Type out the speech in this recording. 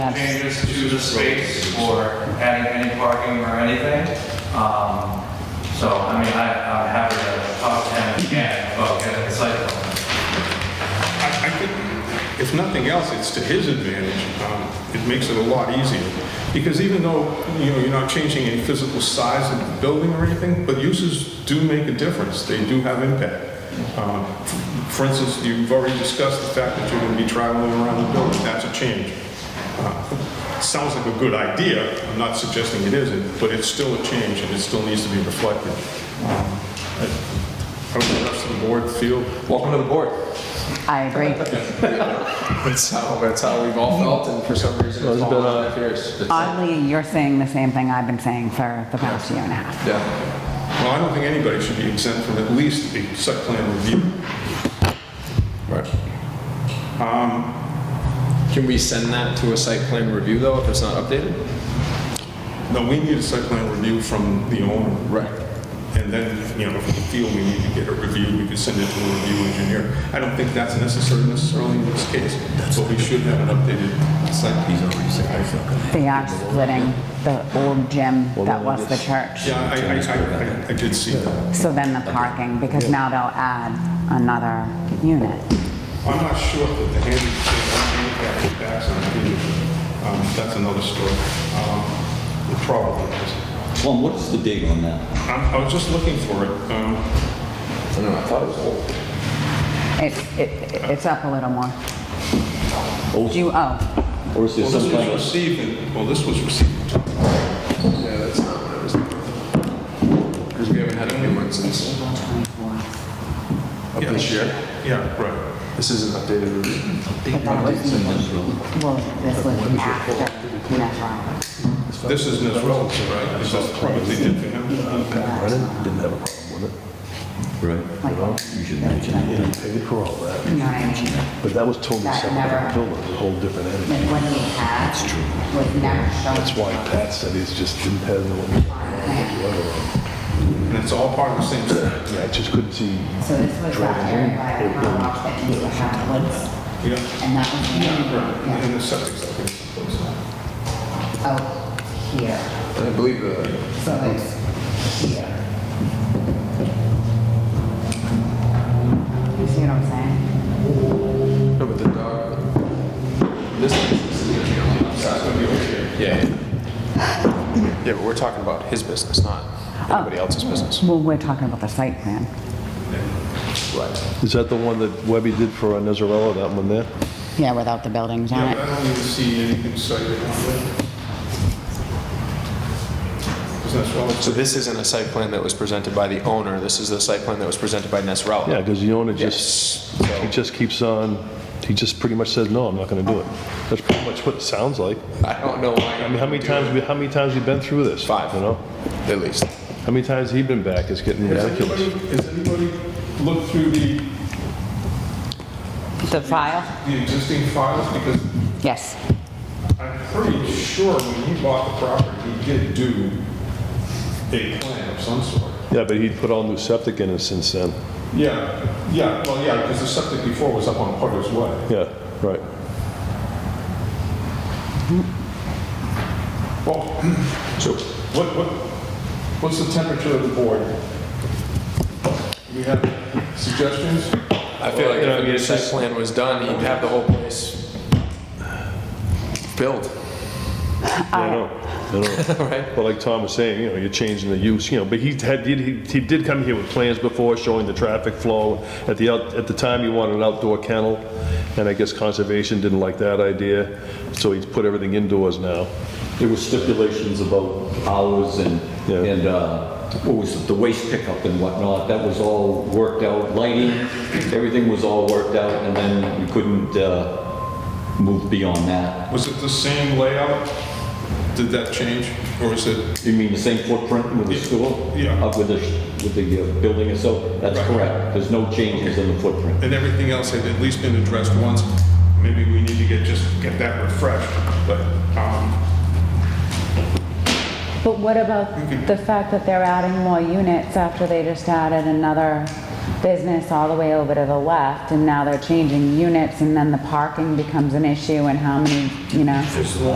changes to the space or adding any parking or anything. Um, So, I mean, I, I'm happy to talk to him again about getting the site plan. I I think, if nothing else, it's to his advantage. Um, It makes it a lot easier. Because even though, you know, you're not changing any physical size of the building or anything, but uses do make a difference. They do have impact. Um, For instance, you've already discussed the fact that you're going to be traveling around the building. That's a change. Uh, Sounds like a good idea. I'm not suggesting it isn't, but it's still a change and it still needs to be reflected. Um, I I don't know if the rest of the board feel Welcome to the board. I agree. That's how, that's how we've all felt, and for some reason, it's all on our ears. It's- Oddly, you're saying the same thing I've been saying for the past year and a half. Yeah. Well, I don't think anybody should be exempt from at least a site plan review. Right. Can we send that to a site plan review, though, if it's not updated? No, we need a site plan review from the owner. Right. And then, you know, if we feel we need to get a review, we could send it to a review engineer. I don't think that's necessary necessarily in this case, but we should have an updated site. He's already They are splitting the old gym that was the church. Yeah, I, I- I, I, I did see that. So then the parking, because now they'll add another unit. I'm not sure that the handicap, handicap backs on the um, that's another story. Um, it probably is. Tom, what is the date on that? I'm- I was just looking for it. Um, I don't know, I thought it was old. It, it, it's up a little more. Do you, oh, Or is there Well, this some was kind of... received, in- well, this was received. Yeah, that's not what it was. Because we haven't had a new one since April 24th. of this year. Yeah, right. This is an updated review. But that was, well, this was after, never. This is Nez Rollins, right? This is what they did for him. Right. Like, You should mention it. and he paid for all that. you know what I mean? But that was totally That separate never- from the building, it was a whole different entity. Like what he had was never shown. That's why Pat said he's just didn't have the, And it's all part of the same thing. yeah, I just couldn't see. So this was that area by the cross that used to have woods, Yeah. and that was the Right. And area the septic's up in out Oh, here. I believe the So it's here. You see what I'm saying? No, but the dog. This business is gonna be on the outside. Yeah. yeah. Yeah, but we're talking about his business, not anybody else's business. Oh. Well, we're talking about the site plan. Right. Is that the one that Webby did for Nezarella, that one there? Yeah, without the buildings on Yeah, but I it. don't even see anything cited on it. Because Nez Rollins, So this isn't a site plan that was presented by the owner. This is the site plan that was presented by Nesrela. Yeah, because the owner just, Yes. he So just keeps on, he just pretty much says, no, I'm not gonna do it. That's pretty much what it sounds like. I don't know why. I mean, how many times, we- how many times we been through this? Five. You know? At least. How many times he been back? It's getting has ridiculous. anybody, has anybody looked through the, The file? the existing files? Because Yes. I'm pretty sure when he bought the property, he did do a plan of some sort. Yeah, but he put all new septic in it since then. Yeah, yeah, well, yeah, because the septic before was up on Potter's Way. Yeah, right. Well, so what, what, what's the temperature of the board? Do we have suggestions? I feel like you know, if I mean, the it's site just- plan was done, he'd have the whole place built, Yeah, I know, I know. right? But like Tom was saying, you know, you're changing the use, you know, but he had, did- he, he did come here with plans before showing the traffic flow. At the, out- at the time, he wanted an outdoor kennel, and I guess conservation didn't like that idea, so he's put everything indoors now. There were stipulations about hours and, Yeah. and uh, what was it, the waste pickup and whatnot, that was all worked out, lighting, everything was all worked out, and then we couldn't uh, move beyond that. Was it the same layout? Did that change, or is it? You mean the same footprint with the school? Yeah. Up with the, with the uh, building itself? That's Right. correct, there's no changes in the footprint. And everything else had at least been addressed once. Maybe we need to get, just get that refreshed, but, um, But what about the fact that they're adding more units after they just added another business all the way over to the left, and now they're changing units, and then the parking becomes an issue, and how many, you know?